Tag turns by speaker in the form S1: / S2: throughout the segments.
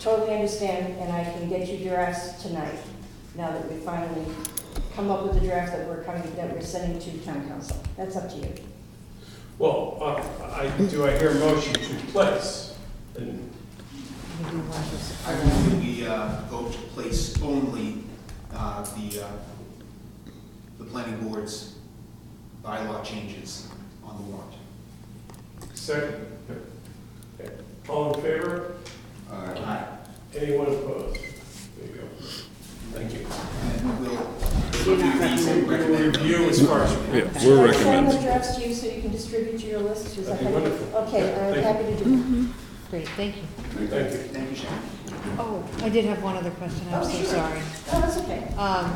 S1: totally understand, and I can get you drafts tonight, now that we finally come up with the draft that we're coming, that we're sending to town council. That's up to you.
S2: Well, uh, I, do I hear a motion to place? And
S3: I move that we uh, vote to place only uh, the, uh, the planning board's bylaw changes on the warrant.
S2: second? Okay. All in favor?
S3: Aye.
S2: Anyone opposed? There you go. Thank you.
S3: And we'll
S1: You're not
S3: review these and
S2: We'll
S3: recommend them.
S2: Review as far as.
S4: Yeah,
S1: Should
S4: we're
S1: I send the
S4: recommending.
S1: drafts to you so you can distribute to your list? Is that
S2: That'd be
S1: how you-
S2: wonderful.
S1: Okay,
S2: Yeah,
S1: I'm
S2: thank
S1: happy to do
S5: Great, thank you.
S2: Thank you.
S3: Thank you, Sharon.
S5: Oh, I did have one other question, I'm
S1: Oh,
S5: so
S1: sure.
S5: sorry.
S1: that. Oh, that's okay.
S5: Um,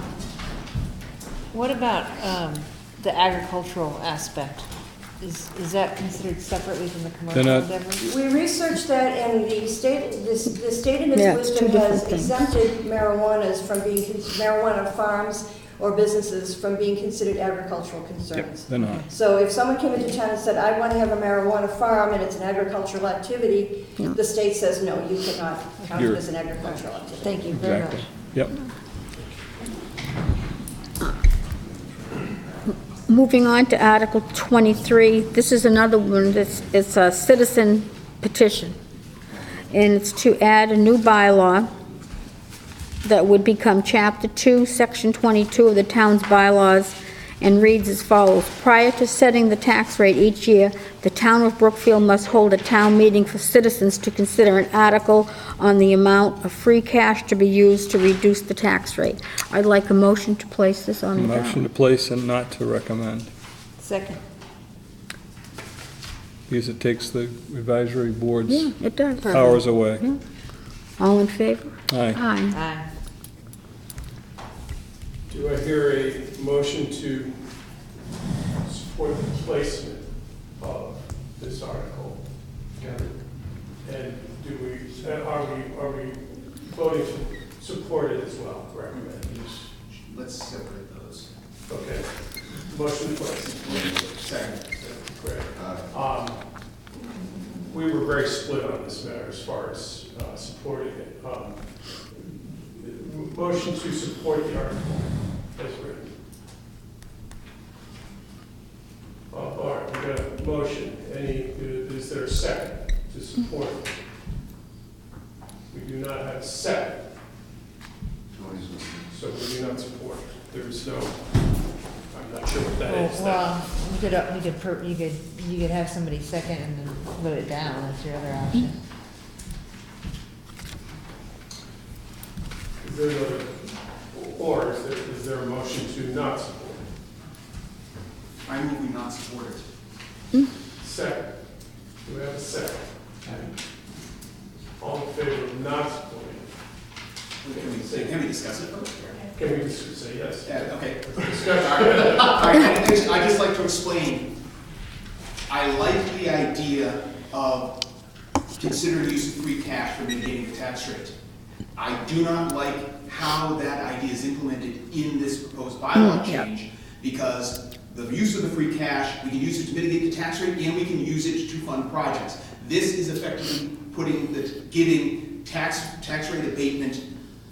S5: What about um, the agricultural aspect? Is, is that considered separately from the commercial
S4: not-
S5: endeavor?
S1: We researched that, and the state, this, the state in
S6: Yeah,
S1: its
S6: it's
S1: wisdom
S6: two
S1: has
S6: different things.
S1: exempted marijuanas from being, con- marijuana farms or businesses from being considered agricultural
S4: Yep,
S1: concerns.
S4: they're not.
S1: So if someone came into town and said, I want to have a marijuana farm and it's an agricultural activity, the state says, no, you cannot count it
S4: You're-
S1: as an agricultural activity.
S5: Thank you very much.
S4: Exactly. Yep.
S6: Moving on to Article 23, this is another one, that's it's a citizen petition, and it's to add a new bylaw that would become Chapter 2, Section 22 of the town's bylaws, and reads as follows. Prior to setting the tax rate each year, the town of Brookfield must hold a town meeting for citizens to consider an article on the amount of free cash to be used to reduce the tax rate. I'd like a motion to place this on the ballot.
S4: Motion to place and not to recommend,
S5: Second,
S4: because it takes the advisory
S6: Yeah,
S4: board's
S6: it does.
S4: powers away.
S6: All in favor?
S4: Aye.
S6: Aye.
S5: aye.
S2: Do I hear a motion to support the placement of this article? And do we, uh, are we, are we voting to support it as well, recommend?
S3: Let's separate those.
S2: Okay, motion placed.
S3: Second.
S2: Great.
S3: Uh,
S2: Um, We were very split on this matter as far as uh, supporting it. Um, Motion to support the article as written. Uh, All right, we got a motion. Any, uh, is there a second to support? it? We do not have a second, so we do not support. There is no, I'm not sure what that
S5: Oh,
S2: is. That-
S5: Well, you could, uh, you could, per- you could, you could have somebody second and then vote it down, that's your other option.
S2: Is there, a- or is there, is there a motion to not support?
S3: I move we not support it.
S2: Second. Do we have a second? All in favor of not supporting?
S3: Can we, can we discuss it?
S2: Can we just say yes?
S3: Yeah, okay.
S2: Discussion.
S3: All right. All right, I just- I just like to explain. I like the idea of consider use of free cash for mitigating the tax rate. I do not like how that idea is implemented in this proposed bylaw change, because the use of the free cash, we can use it to mitigate the tax rate, and we can use it to fund projects. This is effectively putting the, giving tax, tax rate abatement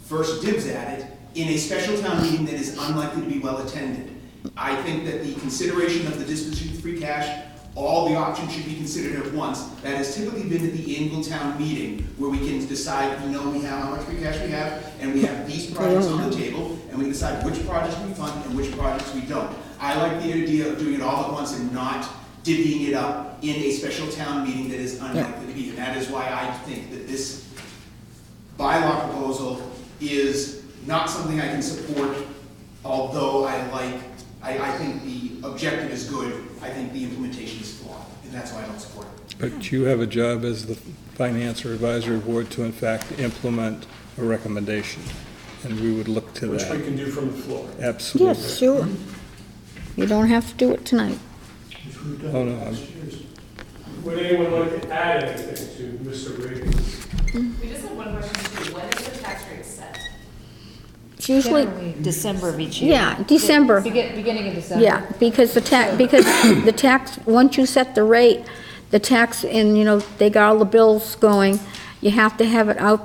S3: first dibs at it in a special town meeting that is unlikely to be well attended. I think that the consideration of the disposition of free cash, all the options should be considered at once. That has typically been at the annual town meeting, where we can decide, we know we have how much free cash we have, and we have these projects on the table, and we decide which projects we fund and which projects we don't. I like the idea of doing it all at once and not divvying it up in a special town meeting that is unlikely to be. And that is why I think that this bylaw proposal is not something I can support, although I like, I, I think the objective is good, I think the implementation is flawed, and that's why I don't support it.
S4: But you have a job as the finance or advisory board to in fact implement a recommendation, and we would look to
S2: Which we
S4: that.
S2: can do from the floor.
S6: Yes,
S4: Absolutely.
S6: sure. You don't have to do it tonight.
S4: Oh, no, I'm-
S2: Would anyone like to add anything to Mr. Reagan's?
S7: We just have one question too, when is the tax rate set?
S6: It's usually,
S5: Generally, December of each year.
S6: yeah, December.
S5: Begin, beginning of December.
S6: Yeah, because the tax, because the tax, once you set the rate, the tax, and, you know, they got all the bills going, you have to have it out